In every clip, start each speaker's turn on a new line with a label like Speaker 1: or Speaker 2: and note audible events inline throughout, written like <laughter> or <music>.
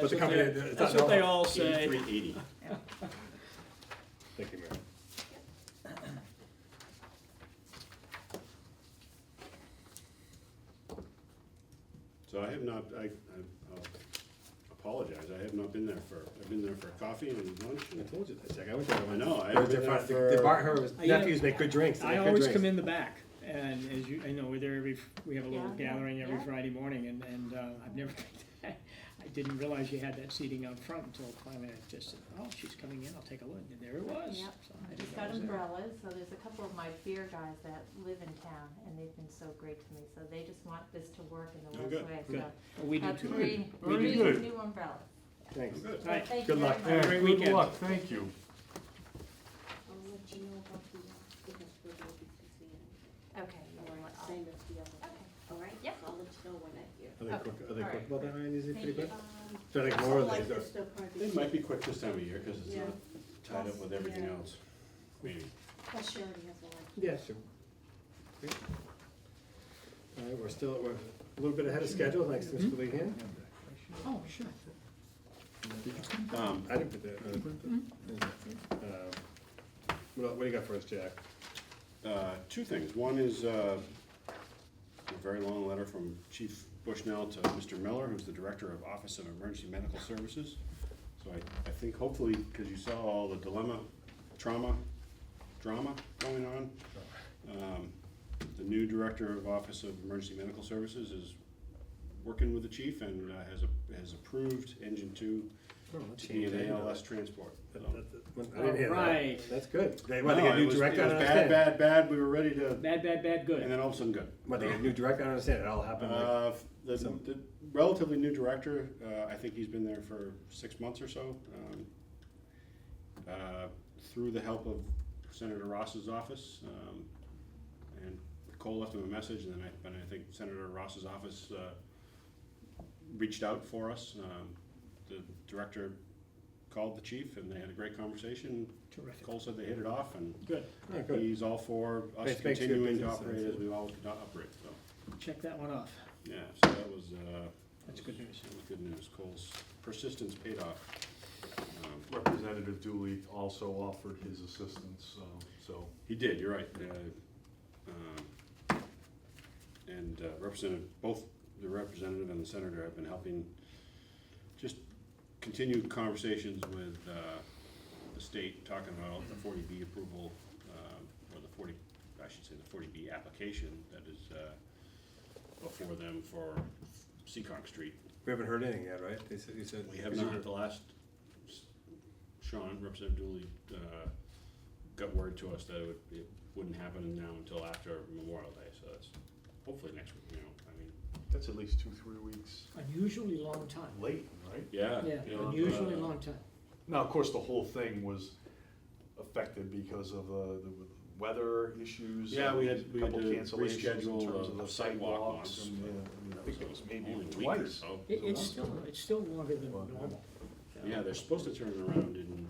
Speaker 1: But
Speaker 2: That's
Speaker 1: the
Speaker 2: what
Speaker 1: company-
Speaker 2: they,
Speaker 1: it's
Speaker 2: that's
Speaker 1: not
Speaker 2: what they
Speaker 1: Delmarva.
Speaker 2: all say.
Speaker 3: Eighty-three eighty.
Speaker 1: Thank you, Mary.
Speaker 3: So I have not, I, I- I'll apologize, I have not been there for, I've been there for coffee and lunch
Speaker 1: I
Speaker 3: and,
Speaker 1: told you that, Jack. I went there.
Speaker 3: I know, I
Speaker 1: It was
Speaker 3: haven't been
Speaker 1: their
Speaker 3: there
Speaker 1: fi- the- the bar- her
Speaker 2: I, Oh, you know,
Speaker 1: nephews make good drinks. They
Speaker 2: I
Speaker 1: make good
Speaker 2: always
Speaker 1: drinks.
Speaker 2: come in the back, and as you, I know, we're there every, we have a little
Speaker 4: Yeah, yeah,
Speaker 2: gathering every
Speaker 4: yeah.
Speaker 2: Friday morning, and, and, uh, I've never, <laughs> I didn't realize you had that seating out front until finally I just said, oh, she's coming in, I'll take a look, and there it was.
Speaker 4: Yep.
Speaker 2: So I
Speaker 4: We've
Speaker 2: didn't
Speaker 4: got
Speaker 2: know it was there.
Speaker 4: umbrellas, so there's a couple of my beer guys that live in town, and they've been so great to me, so they just want this to work in the
Speaker 3: Oh,
Speaker 4: worst
Speaker 3: good,
Speaker 4: way,
Speaker 2: good.
Speaker 4: so.
Speaker 2: Well, We
Speaker 4: have
Speaker 2: did too.
Speaker 4: three,
Speaker 2: Very
Speaker 4: three
Speaker 5: good.
Speaker 4: new umbrellas.
Speaker 1: Thanks.
Speaker 3: good.
Speaker 2: All right,
Speaker 4: Thank
Speaker 1: Good
Speaker 4: you
Speaker 1: luck.
Speaker 4: very
Speaker 5: Yeah,
Speaker 4: much.
Speaker 2: Great
Speaker 5: good
Speaker 2: weekend.
Speaker 5: luck, thank you.
Speaker 6: I'll let you know about the, uh, because we're gonna be busy and,
Speaker 4: Okay.
Speaker 6: all right, same as the other,
Speaker 4: Okay.
Speaker 6: all right?
Speaker 4: Yep.
Speaker 6: I'll let you know when I hear.
Speaker 2: Oh,
Speaker 1: Are they quick, are they
Speaker 4: All
Speaker 1: quick
Speaker 4: right.
Speaker 1: about that, Ryan? Is it pretty
Speaker 4: Thank you.
Speaker 1: quick?
Speaker 6: Um,
Speaker 1: So I think more of
Speaker 6: like
Speaker 1: these are-
Speaker 6: this, they'll probably
Speaker 3: It
Speaker 6: be-
Speaker 3: might be quick this time of year, cause it's
Speaker 6: Yeah.
Speaker 3: not tied up with everything else, maybe.
Speaker 6: Plus she already has a license.
Speaker 1: Yeah, sure. Great. All right, we're still, we're a little bit ahead of schedule, thanks to
Speaker 2: Mm-hmm.
Speaker 1: Mr. Lehan.
Speaker 2: Oh, sure.
Speaker 3: Um,
Speaker 1: I didn't put that.
Speaker 2: Mm-hmm.
Speaker 1: uh, uh, What el- what do you got for us, Jack?
Speaker 3: uh, two things. One is uh, a very long letter from Chief Bushnell to Mr. Miller, who's the Director of Office of Emergency Medical Services. So I, I think hopefully, because you saw all the dilemma, trauma, drama going on, um, the new Director of Office of Emergency Medical Services is working with the chief and uh, has, a- has approved Engine Two to be an ALS transport.
Speaker 1: That-
Speaker 3: So-
Speaker 1: that- that- when- I didn't hear that.
Speaker 2: Alright.
Speaker 1: That's good. They
Speaker 3: No,
Speaker 1: want to get a
Speaker 3: it
Speaker 1: new
Speaker 3: was-
Speaker 1: director, I
Speaker 3: It
Speaker 1: don't
Speaker 3: was bad,
Speaker 1: understand.
Speaker 3: bad, bad. We were ready to,
Speaker 2: Bad, bad, bad,
Speaker 3: and
Speaker 2: good.
Speaker 3: then all of a sudden, good.
Speaker 1: What, they get a new director, I don't understand, it all happened like,
Speaker 3: Uh, The,
Speaker 1: Some-
Speaker 3: the relatively new director, uh, I think he's been there for six months or so. um, uh, Through the help of Senator Ross's office, um, and Cole left him a message, and then I, and I think Senator Ross's office, uh, reached out for us. Um, The director called the chief, and they had a great conversation.
Speaker 2: Terrific.
Speaker 3: Cole said they hit it off, and
Speaker 2: Good.
Speaker 1: oh, good.
Speaker 3: he's all for us
Speaker 1: Makes- makes good
Speaker 3: continuing to
Speaker 1: business
Speaker 3: operate
Speaker 1: sense.
Speaker 3: as we all operate, so.
Speaker 2: Check that one off.
Speaker 3: Yeah, so that was, uh.
Speaker 2: That's good news.
Speaker 3: That was good news. Cole's persistence paid off. Um,
Speaker 5: Representative Dooley also offered his assistance, um, so.
Speaker 3: He did, you're right. uh, um, And uh, Representative, both the representative and the senator have been helping just continue conversations with uh, the state, talking about the forty B approval, um, or the forty, I should say the forty B application that is uh, before them for Seccong Street.
Speaker 1: We haven't heard anything yet, right? They said, you said.
Speaker 3: We have not, the last, Sean, Representative Dooley, uh, got word to us that it would, it wouldn't happen now until after Memorial Day, so that's hopefully next week, you know, I mean,
Speaker 5: That's at least two, three weeks
Speaker 2: Unusually long time.
Speaker 5: late, right?
Speaker 3: yeah.
Speaker 2: Yeah,
Speaker 3: you know,
Speaker 2: unusually
Speaker 3: uh,
Speaker 2: long time.
Speaker 5: Now, of course, the whole thing was affected because of uh, the weather issues.
Speaker 3: Yeah, we had- we had
Speaker 5: couple
Speaker 3: to
Speaker 5: cancellations in
Speaker 3: reschedule,
Speaker 5: terms
Speaker 3: uh,
Speaker 5: of the
Speaker 3: sidewalk
Speaker 5: sidewalks.
Speaker 3: ones,
Speaker 5: and, uh,
Speaker 3: but-
Speaker 5: yeah, I mean, I think it was
Speaker 3: Only
Speaker 5: maybe
Speaker 3: a week or
Speaker 5: twice.
Speaker 3: so.
Speaker 2: It, it's still, it's still longer than
Speaker 5: Well,
Speaker 2: normal.
Speaker 3: Yeah, they're supposed to turn it around in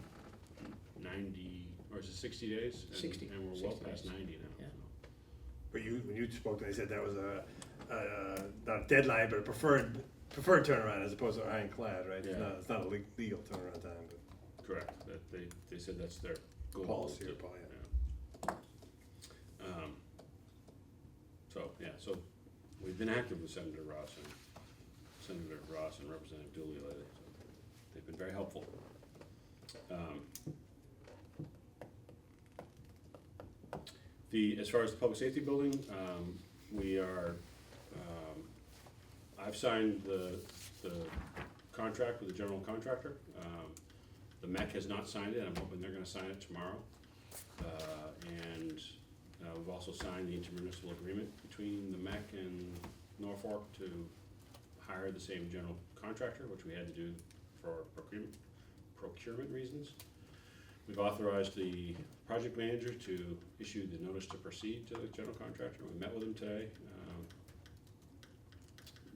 Speaker 3: ninety, or is it sixty days? And-
Speaker 2: 60,
Speaker 3: And we're well
Speaker 2: 60
Speaker 3: past
Speaker 2: days.
Speaker 3: ninety now,
Speaker 2: Yeah.
Speaker 3: so.
Speaker 1: But you, when you spoke, they said that was a, a, not a deadline, but a preferred, preferred turnaround as opposed to ironclad, right? It's
Speaker 3: Yeah.
Speaker 1: not, it's not a le- legal turnaround time, but
Speaker 3: Correct, that, they, they said that's their goal.
Speaker 1: policy or
Speaker 3: to-
Speaker 1: policy.
Speaker 3: Yeah. Um, So, yeah, so we've been active with Senator Ross and Senator Ross and Representative Dooley lately, so they've been very helpful. Um, The, as far as the public safety building, um, we are, um, I've signed the, the contract with the general contractor. Um, The MEC has not signed it, I'm hoping they're gonna sign it tomorrow. Uh, And uh, we've also signed the intermunicipal agreement between the MEC and Norfolk to hire the same general contractor, which we had to do for procurement, procurement reasons. We've authorized the project manager to issue the notice to proceed to the general contractor. We met with him today. Um,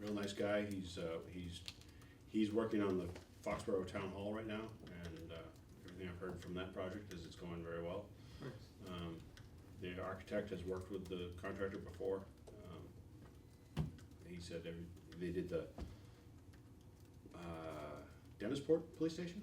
Speaker 3: Real nice guy. He's, uh, he's, he's working on the Foxborough Town Hall right now, and uh, everything I've heard from that project is it's going very well. Um, The architect has worked with the contractor before. Um, He said every, they did the, uh, Dennisport Police Station?